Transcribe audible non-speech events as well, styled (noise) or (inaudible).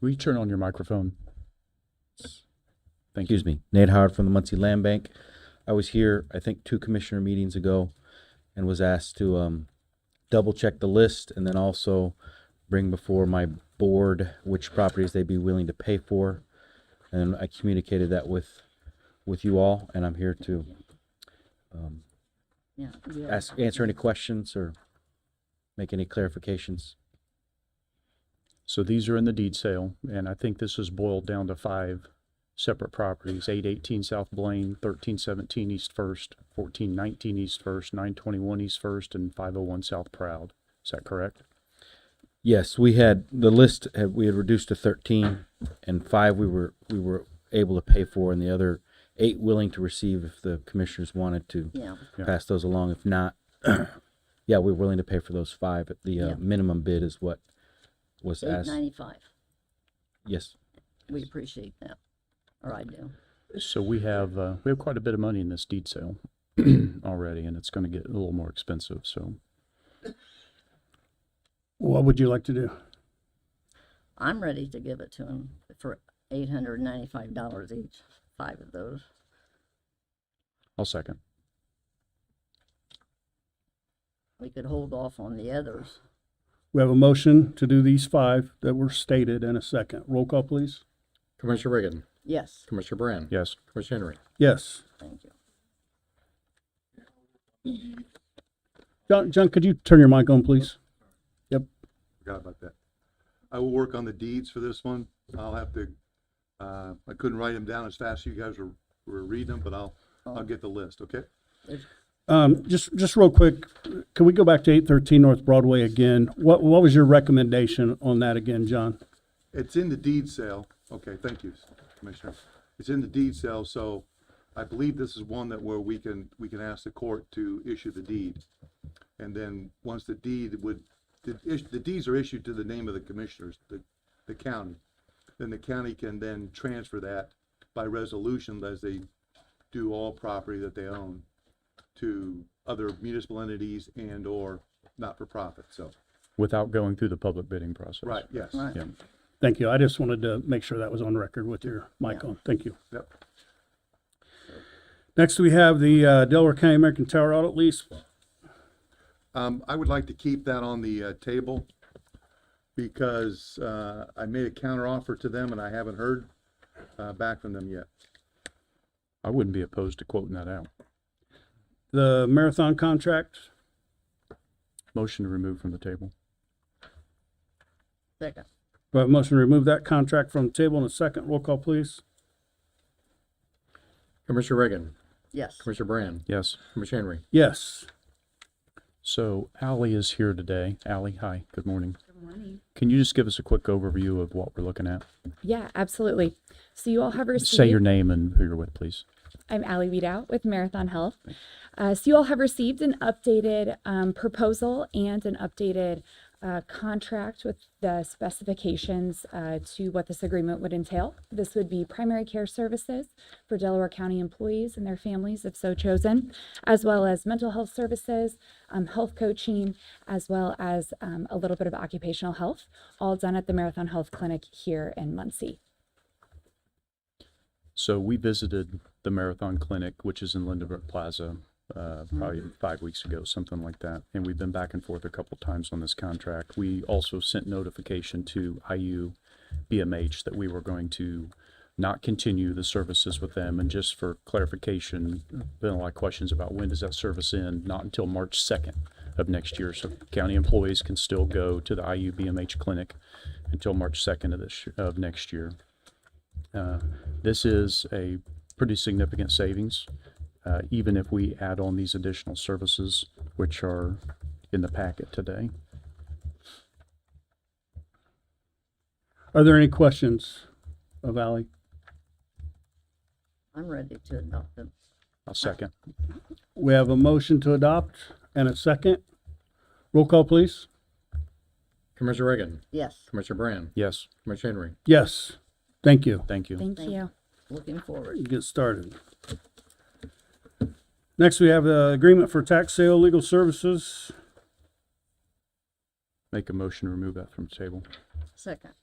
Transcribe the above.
Will you turn on your microphone? Thank you. Excuse me, Nate Howard from the Muncie Land Bank. I was here, I think, two commissioner meetings ago and was asked to um, double check the list and then also bring before my board which properties they'd be willing to pay for. And I communicated that with, with you all, and I'm here to um, Yeah. ask, answer any questions or make any clarifications. So these are in the deed sale, and I think this is boiled down to five separate properties. Eight eighteen South Blaine, thirteen seventeen East First, fourteen nineteen East First, nine twenty-one East First, and five oh one South Proud. Is that correct? Yes, we had, the list, had we had reduced to thirteen, and five we were, we were able to pay for, and the other eight willing to receive if the commissioners wanted to Yeah, Yeah. pass those along. If not, (clears throat) yeah, we're willing to pay for those five, but the uh, Yeah. minimum bid is what was eight asked. ninety-five. Yes, We appreciate that, or I do. So we have, uh, we have quite a bit of money in this deed sale (clears throat) already, and it's gonna get a little more expensive, so. What would you like to do? I'm ready to give it to him for eight hundred ninety-five dollars each, five of those. I'll second. We could hold off on the others. We have a motion to do these five that were stated in a second. Roll call, please. Commissioner Reagan, Yes, Commissioner Brand. Yes, Commissioner Henry. Yes. thank you. John, John, could you turn your mic on, please? Yep. Forgot about that. I will work on the deeds for this one. I'll have to, uh, I couldn't write them down as fast as you guys were, were reading them, but I'll, I'll get the list, okay? Um, just, just real quick, can we go back to eight thirteen North Broadway again? What, what was your recommendation on that again, John? It's in the deed sale. Okay, thank you, Commissioner. It's in the deed sale, so I believe this is one that where we can, we can ask the court to issue the deed. And then, once the deed would, the, is- the deeds are issued to the name of the commissioners, the, the county. Then the county can then transfer that by resolution as they do all property that they own to other municipal entities and/or not-for-profit, so, without going through the public bidding process. right, yes, Right. Yeah. Thank you. I just wanted to make sure that was on record with your mic on. Thank you. yep. Next, we have the, uh, Delaware County American Tower audit lease. Um, I would like to keep that on the, uh, table because, uh, I made a counter offer to them and I haven't heard, uh, back from them yet. I wouldn't be opposed to quoting that out. The marathon contract, Motion to remove from the table. Second, we have a motion to remove that contract from the table in a second. Roll call, please. Commissioner Reagan, yes, Commissioner Brand, Yes. Commissioner Henry. Yes. So Ally is here today. Ally, hi, good morning. Can you just give us a quick overview of what we're looking at? Yeah, absolutely. So you all have received. Say your name and who you're with, please. I'm Allie Weedout with Marathon Health. Uh, so you all have received an updated um, proposal and an updated uh, contract with the specifications uh, to what this agreement would entail. This would be primary care services for Delaware County employees and their families, if so chosen, as well as mental health services, um, health coaching, as well as um, a little bit of occupational health, all done at the Marathon Health Clinic here in Muncie. So we visited the Marathon Clinic, which is in Lindbergh Plaza, uh, probably five weeks ago, something like that. And we've been back and forth a couple times on this contract. We also sent notification to IU BMH that we were going to not continue the services with them. And just for clarification, been a lot of questions about when does that service end? Not until March 2nd of next year. So county employees can still go to the IU BMH clinic until March 2nd of this, of next year. Uh, This is a pretty significant savings, uh, even if we add on these additional services, which are in the packet today. Are there any questions of Ally? I'm ready to adopt them. I'll second. We have a motion to adopt and a second. Roll call, please. Commissioner Reagan, Yes, Commissioner Brand, Yes, Commissioner Henry. Yes, thank you. thank you. Thank Thank- you. looking forward. Get started. Next, we have the agreement for tax sale legal services. Make a motion to remove that from the table. Second,